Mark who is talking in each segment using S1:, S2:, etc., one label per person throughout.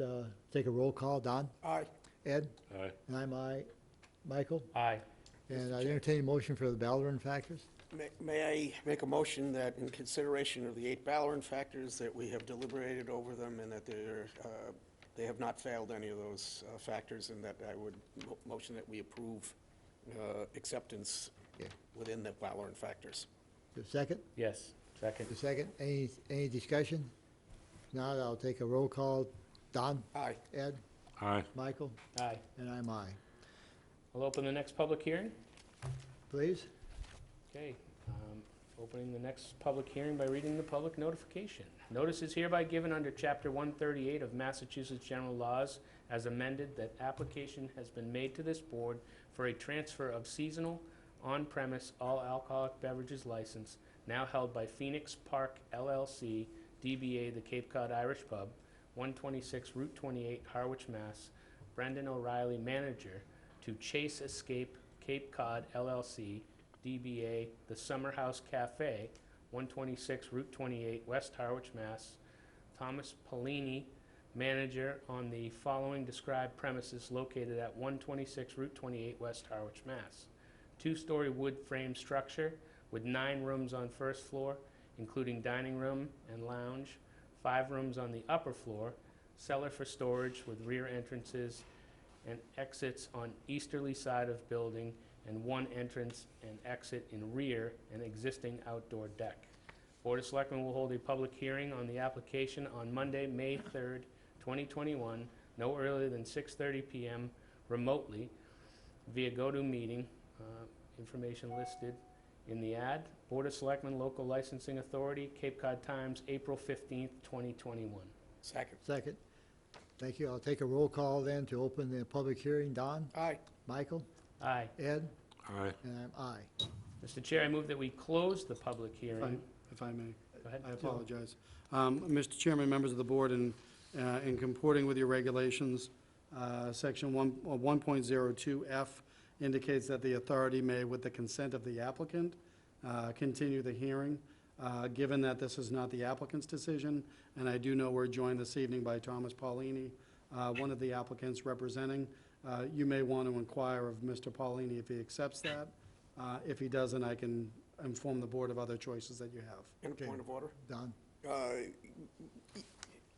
S1: uh, take a roll call. Don?
S2: Aye.
S1: Ed?
S3: Aye.
S1: And I'm aye. Michael?
S4: Aye.
S1: And I entertain a motion for the Balaran factors.
S2: May- May I make a motion that in consideration of the eight Ballarin factors, that we have deliberated over them and that they're, uh, they have not failed any of those uh, factors, and that I would mo- motion that we approve uh, acceptance
S1: Okay.
S2: within the Ballarin factors.
S1: The second?
S4: Yes, second.
S1: The second? Any, any discussion? If not, I'll take a roll call. Don?
S2: Aye.
S1: Ed?
S3: Aye.
S1: Michael?
S4: Aye.
S1: And I'm aye.
S4: I'll open the next public hearing.
S1: Please?
S4: Okay, um, opening the next public hearing by reading the public notification. Notice is hereby given under Chapter 138 of Massachusetts General Laws as amended that application has been made to this board for a transfer of seasonal on-premise all alcoholic beverages license now held by Phoenix Park LLC, DBA The Cape Cod Irish Pub, 126 Route 28, Harwich, Mass. Brendan O'Reilly, manager, to Chase Escape Cape Cod LLC, DBA The Summer House Cafe, 126 Route 28, West Harwich, Mass. Thomas Polini, manager on the following described premises located at 126 Route 28, West Harwich, Mass. Two-story wood frame structure with nine rooms on first floor, including dining room and lounge, five rooms on the upper floor, cellar for storage with rear entrances and exits on easterly side of building, and one entrance and exit in rear and existing outdoor deck. Board of Selectmen will hold a public hearing on the application on Monday, May 3rd, 2021, no earlier than 6:30 PM remotely via GoToMeeting, uh, information listed in the ad. Board of Selectmen Local Licensing Authority, Cape Cod Times, April 15th, 2021.
S2: Second.
S1: Second. Thank you. I'll take a roll call then to open the public hearing. Don?
S2: Aye.
S1: Michael?
S4: Aye.
S1: Ed?
S3: Aye.
S1: And I'm aye.
S4: Mr. Chair, I move that we close the public hearing.
S5: Fine. if I may.
S4: Go ahead.
S5: I apologize. Um, Mr. Chairman, members of the board, in, uh, in comporting with your regulations, uh, Section 1 uh, 1.02F indicates that the authority may, with the consent of the applicant, uh, continue the hearing. Uh, Given that this is not the applicant's decision, and I do know we're joined this evening by Thomas Paulini, uh, one of the applicants representing, uh, you may want to inquire of Mr. Paulini if he accepts that. Uh, If he doesn't, I can inform the board of other choices that you have.
S2: And a point of order?
S1: Don?
S2: Uh,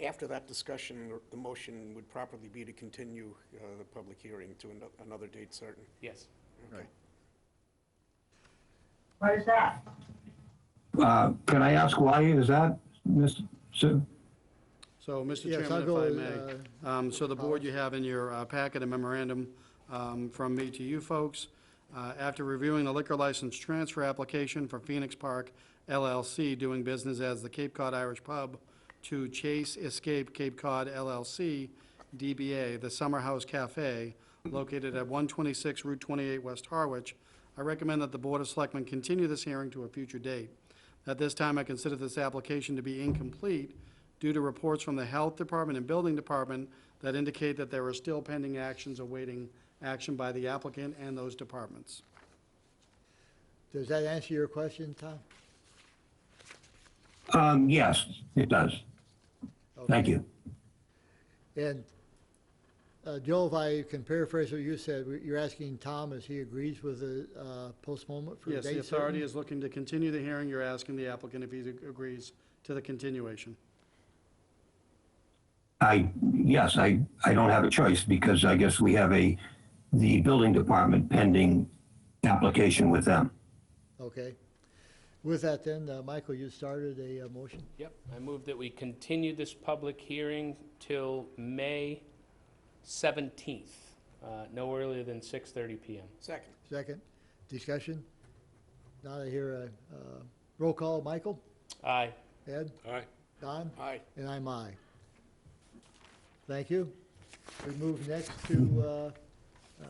S2: After that discussion, the motion would properly be to continue uh, the public hearing to ano- another date certain.
S4: Yes.
S2: Okay.
S6: Why is that?
S7: Uh, Can I ask why is that, Mr. Sid?
S5: So, Mr.
S1: Yes, I'll
S5: Chairman,
S1: go, uh,
S5: if I may, um, so the board, you have in your uh, packet a memorandum um, from me to you folks. Uh, After reviewing the liquor license transfer application for Phoenix Park LLC, doing business as the Cape Cod Irish Pub, to Chase Escape Cape Cod LLC, DBA, the Summer House Cafe, located at 126 Route 28, West Harwich, I recommend that the Board of Selectmen continue this hearing to a future date. At this time, I consider this application to be incomplete due to reports from the Health Department and Building Department that indicate that there are still pending actions awaiting action by the applicant and those departments.
S1: Does that answer your question, Tom?
S7: Um, Yes, it does. Thank you.
S1: And uh, Joe, if I can paraphrase what you said, we- you're asking Tom if he agrees with the uh, postponement for a
S5: Yes, the
S1: date
S5: authority
S1: certain?
S5: is looking to continue the hearing. You're asking the applicant if he agrees to the continuation.
S7: I, yes, I, I don't have a choice because I guess we have a, the building department pending application with them.
S1: Okay. With that then, uh, Michael, you started a uh, motion.
S4: Yep, I move that we continue this public hearing till May 17th, uh, no earlier than 6:30 PM.
S2: Second.
S1: Second, discussion? Now I hear a uh, roll call. Michael?
S4: Aye.
S1: Ed?
S3: Aye.
S1: Don?
S2: Aye.
S1: And I'm aye. Thank you. We move next to, uh, uh,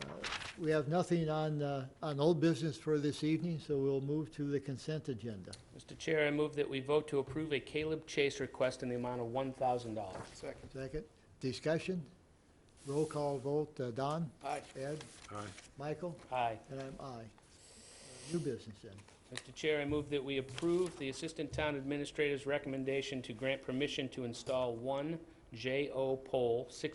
S1: we have nothing on, uh, on old business for this evening, so we'll move to the consent agenda.
S4: Mr. Chair, I move that we vote to approve a Caleb Chase request in the amount of $1,000.
S2: Second.
S1: Second, discussion, roll call vote, uh, Don,
S2: Aye.
S1: Ed,
S3: Aye.
S1: Michael,
S4: Aye.
S1: and I'm aye. Uh, New business then.
S4: Mr. Chair, I move that we approve the Assistant Town Administrator's recommendation to grant permission to install one J.O. Poll, 6